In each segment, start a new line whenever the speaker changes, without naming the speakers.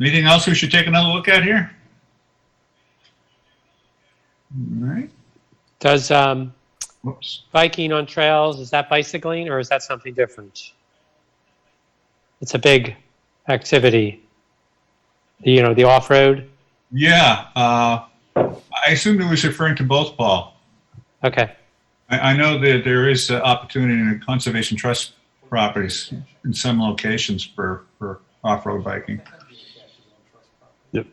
Anything else we should take another look at here? All right,
Does um,
whoops.
biking on trails, is that bicycling or is that something different? It's a big activity. You know, the off road.
Yeah, uh, I assumed it was referring to both, Paul.
Okay.
I, I know that there is uh, opportunity in conservation trust properties in some locations for, for off-road biking.
Yep.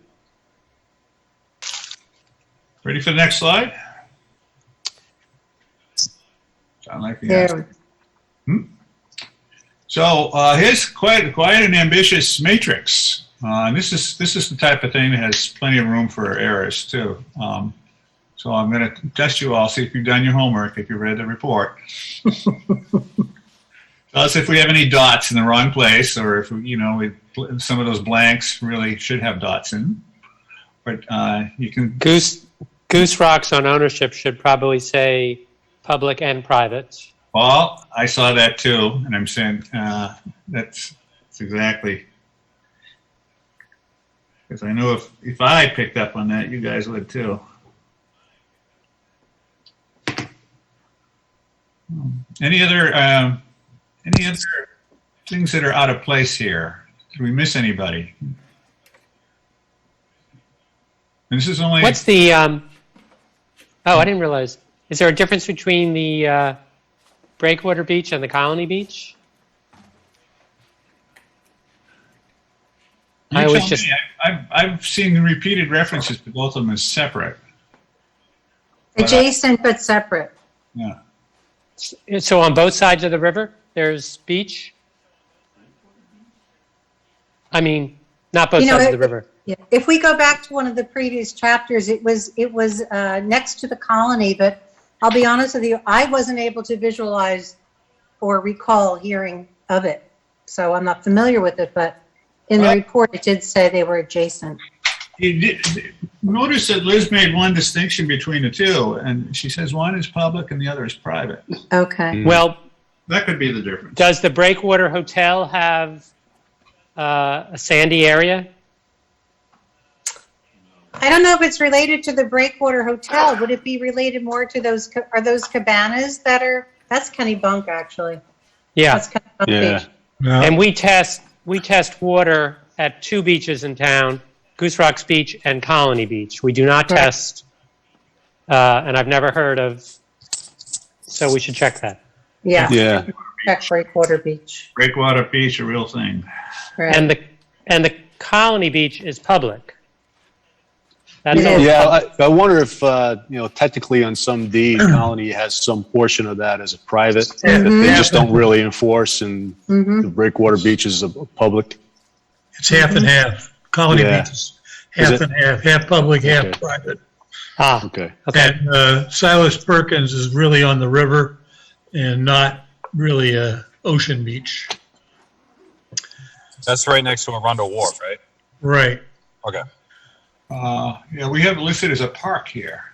Ready for the next slide? Sound like the answer.
There,
So uh, here's quite quite an ambitious matrix. Uh, and this is this is the type of thing that has plenty of room for errors too. Um, so I'm going to test you all, see if you've done your homework, if you read the report. Tell us if we have any dots in the wrong place, or if you know we, some of those blanks really should have dots in. But uh, you can
Goose Goose Rocks on ownership should probably say public and private.
Well, I saw that too, and I'm saying uh, that's, that's exactly because I know if if I picked up on that, you guys would too. Any other um, any other things that are out of place here? Did we miss anybody? And this is only
What's the um, Oh, I didn't realize. Is there a difference between the uh, Breakwater Beach and the Colony Beach?
You
I
tell
was just-
me. I, I've I've seen repeated references to both of them as separate.
adjacent but separate.
Yeah.
So on both sides of the river, there's beach? I mean, not both
You know,
sides
it-
of the river.
Yeah. If we go back to one of the previous chapters, it was, it was uh, next to the colony, but I'll be honest with you, I wasn't able to visualize or recall hearing of it. So I'm not familiar with it, but in the
Well-
report, it did say they were adjacent.
You did- Notice that Liz made one distinction between the two, and she says one is public and the other is private.
Okay.
Well,
That could be the difference.
does the Breakwater Hotel have uh, a sandy area?
I don't know if it's related to the Breakwater Hotel. Would it be related more to those, ca- are those cabanas that are, that's Kennebunk, actually.
Yeah,
That's Kennebunk
Yeah.
Beach.
and we test, we test water at two beaches in town, Goose Rocks Beach and Colony Beach. We do not
Correct.
test, uh, and I've never heard of, so we should check that.
Yeah,
Yeah.
that's Breakwater Beach.
Breakwater Beach, a real thing.
Right.
And the, and the Colony Beach is public. That's
It
all
is.
Yeah. I, I wonder if, uh, you know, technically on some deed, Colony has some portion of that as a private that they
Mhm.
just don't really enforce and
Mhm.
the Breakwater Beach is a a public.
It's half and half. Colony
Yeah.
Beach is
Is
half
it-
and half, half public, half
Okay.
private.
Ah,
Okay.
okay.
And uh, Silas Perkins is really on the river and not really a ocean beach.
That's right next to Arundel Wharf, right?
Right,
Uh, yeah, we have it listed as a park here.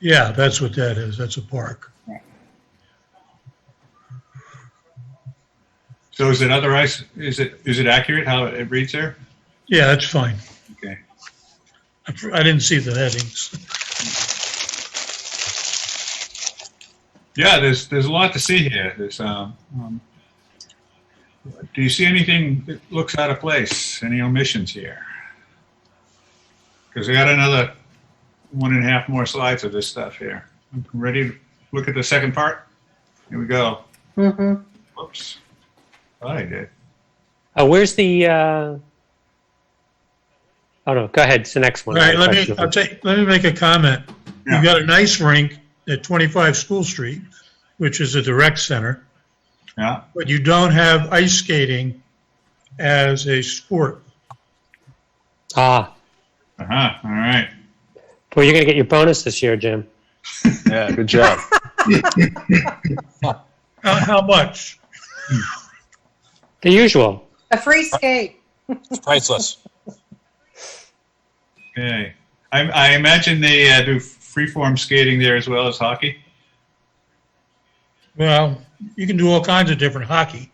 yeah, that's what that is, that's a park.
So is it otherwise, is it, is it accurate how it reads there?
Yeah, that's fine.
Okay.
I fr- I didn't see the headings.
Yeah, there's, there's a lot to see here. There's, um, um, do you see anything that looks out of place? Any omissions here? Because we got another one and a half more slides of this stuff here. Ready to look at the second part? Here we go.
Mm-hmm.
Whoops. Thought I did.
Uh, where's the? Uh... Oh no, go ahead. It's the next
All
one.
right, let me, I'll take, let me make a comment.
Yeah.
You've got an ice rink at 25 School Street, which is a direct center.
Yeah.
but you don't have ice skating as a sport.
Ah,
Uh huh. All right.
well, you're gonna get your bonus this year, Jim.
Yeah. Good job.
How, how much?
The usual.
A free skate.
It's priceless.
Okay. I, I imagine they uh, do freeform skating there as well as hockey.
Well, you can do all kinds of different hockey.